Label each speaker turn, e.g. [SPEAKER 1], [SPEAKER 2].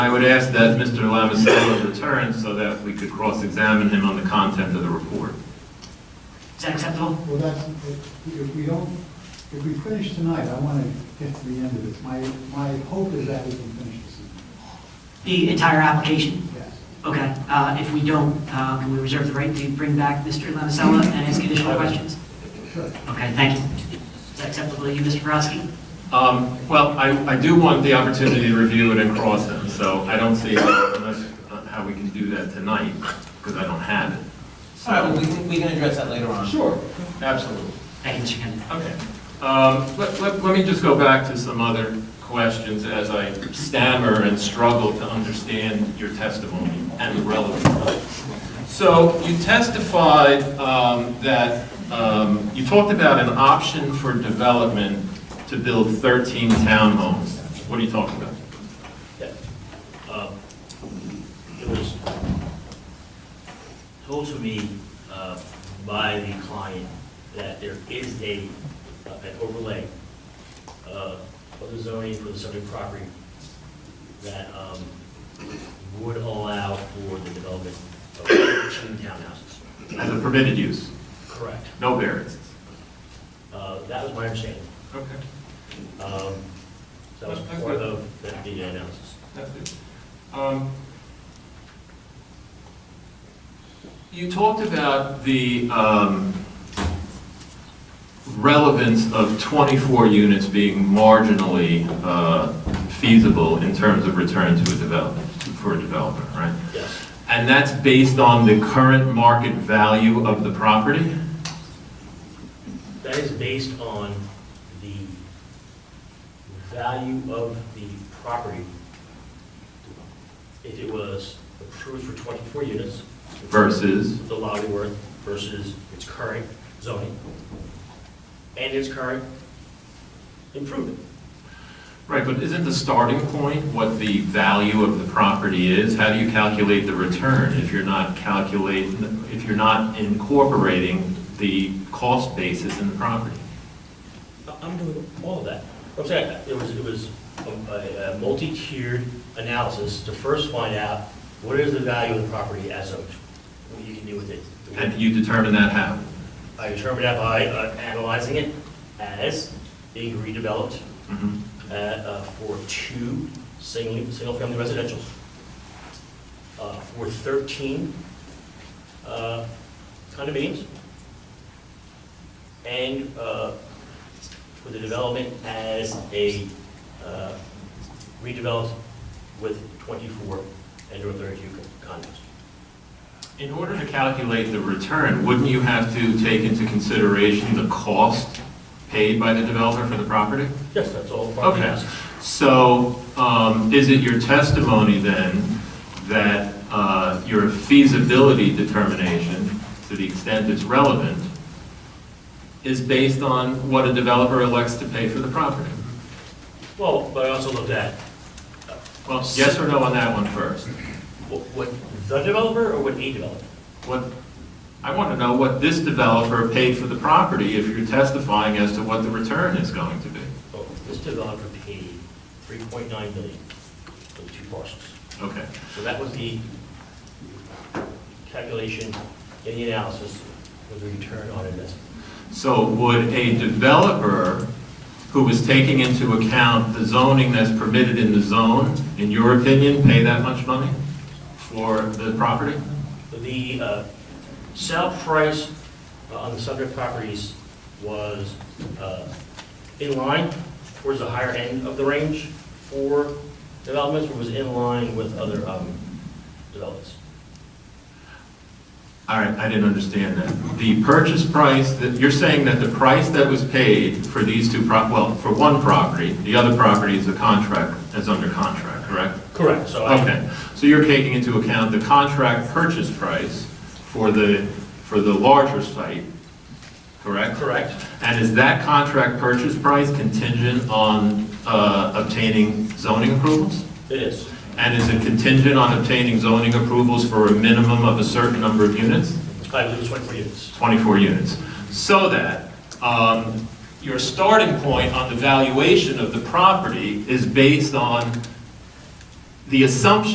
[SPEAKER 1] I would ask that Mr. Lamisello return so that we could cross-examine him on the content of the report.
[SPEAKER 2] Is that acceptable?
[SPEAKER 3] Well, that's, if we don't, if we finish tonight, I want to get to the end of this. My, my hope is that we can finish this evening,
[SPEAKER 2] The entire application?
[SPEAKER 3] yes.
[SPEAKER 2] Okay, uh, if we don't, uh, can we reserve the right to bring back Mr. Lamicella and ask additional questions?
[SPEAKER 3] Sure.
[SPEAKER 2] Okay, thank you. Is that acceptable to you, Mr. Brodsky?
[SPEAKER 1] Um, Well, I, I do want the opportunity to review it and cross him, so I don't see how unless- how we can do that tonight, because I don't have it.
[SPEAKER 4] All right, well, we can, we can address that later on.
[SPEAKER 1] Sure, absolutely.
[SPEAKER 2] Thank you, Mr. Kennedy.
[SPEAKER 1] Okay. Um, Let let- let me just go back to some other questions as I stammer and struggle to understand your testimony and the relevance of it. So you testified um, that, um, you talked about an option for development to build 13 townhomes. What are you talking about?
[SPEAKER 5] Uh, It was told to me uh, by the client that there is a, uh, an overlay uh, of the zoning for the subject property that um, would allow for the development of two townhouses.
[SPEAKER 1] As a permitted use,
[SPEAKER 5] Correct.
[SPEAKER 1] no variances?
[SPEAKER 5] Uh, That was my understanding.
[SPEAKER 1] Okay.
[SPEAKER 5] Um, That was part of the the analysis.
[SPEAKER 1] That's it. Um, You talked about the um, relevance of 24 units being marginally uh, feasible in terms of return to a development, for a developer, right?
[SPEAKER 5] Yes.
[SPEAKER 1] And that's based on the current market value of the property?
[SPEAKER 5] That is based on the value of the property. If it was approved for 24 units.
[SPEAKER 1] Versus?
[SPEAKER 5] The lottery worth versus its current zoning and its current improvement.
[SPEAKER 1] Right, but isn't the starting point what the value of the property is? How do you calculate the return if you're not calculating, if you're not incorporating the cost basis in the property?
[SPEAKER 5] I- I'm doing all of that. I'm saying, it was, it was a- a a multi-tiered analysis to first find out what is the value of the property as of, what you can do with it.
[SPEAKER 1] And you determine that how?
[SPEAKER 5] I determined that by uh, analyzing it as being redeveloped
[SPEAKER 1] Mhm.
[SPEAKER 5] uh, uh, for two single, single-family residentials, uh, for 13 uh, condominiums, and uh, for the development as a uh, redeveloped with 24 and or 32 condos.
[SPEAKER 1] In order to calculate the return, wouldn't you have to take into consideration the cost paid by the developer for the property?
[SPEAKER 5] Yes, that's all part of the
[SPEAKER 1] Okay,
[SPEAKER 5] analysis.
[SPEAKER 1] so um, is it your testimony then that uh, your feasibility determination, to the extent it's relevant, is based on what a developer elects to pay for the property?
[SPEAKER 5] Well, but I also looked at
[SPEAKER 1] Well, yes or no on that one first?
[SPEAKER 5] What, what the developer or what a developer?
[SPEAKER 1] What, I want to know what this developer paid for the property if you're testifying as to what the return is going to be.
[SPEAKER 5] Oh, This developer paid three point nine million for the two parcels.
[SPEAKER 1] Okay,
[SPEAKER 5] So that was the calculation in the analysis for the return on investment.
[SPEAKER 1] so would a developer who was taking into account the zoning that's permitted in the zone, in your opinion, pay that much money for the property?
[SPEAKER 5] The uh, sale price uh, on the subject properties was uh, in line towards the higher end of the range for developments, but was in line with other um, developments.
[SPEAKER 1] All right, I didn't understand that. The purchase price, that, you're saying that the price that was paid for these two prop, well, for one property, the other property is a contract, is under contract, correct?
[SPEAKER 5] Correct. So I,
[SPEAKER 1] Okay, so you're taking into account the contract purchase price for the, for the larger site, correct?
[SPEAKER 5] Correct.
[SPEAKER 1] And is that contract purchase price contingent on uh, obtaining zoning approvals?
[SPEAKER 5] it is.
[SPEAKER 1] And is it contingent on obtaining zoning approvals for a minimum of a certain number of units?
[SPEAKER 5] I believe it's 24 units.
[SPEAKER 1] 24 units. So that um, your starting point on the valuation of the property is based on the assumption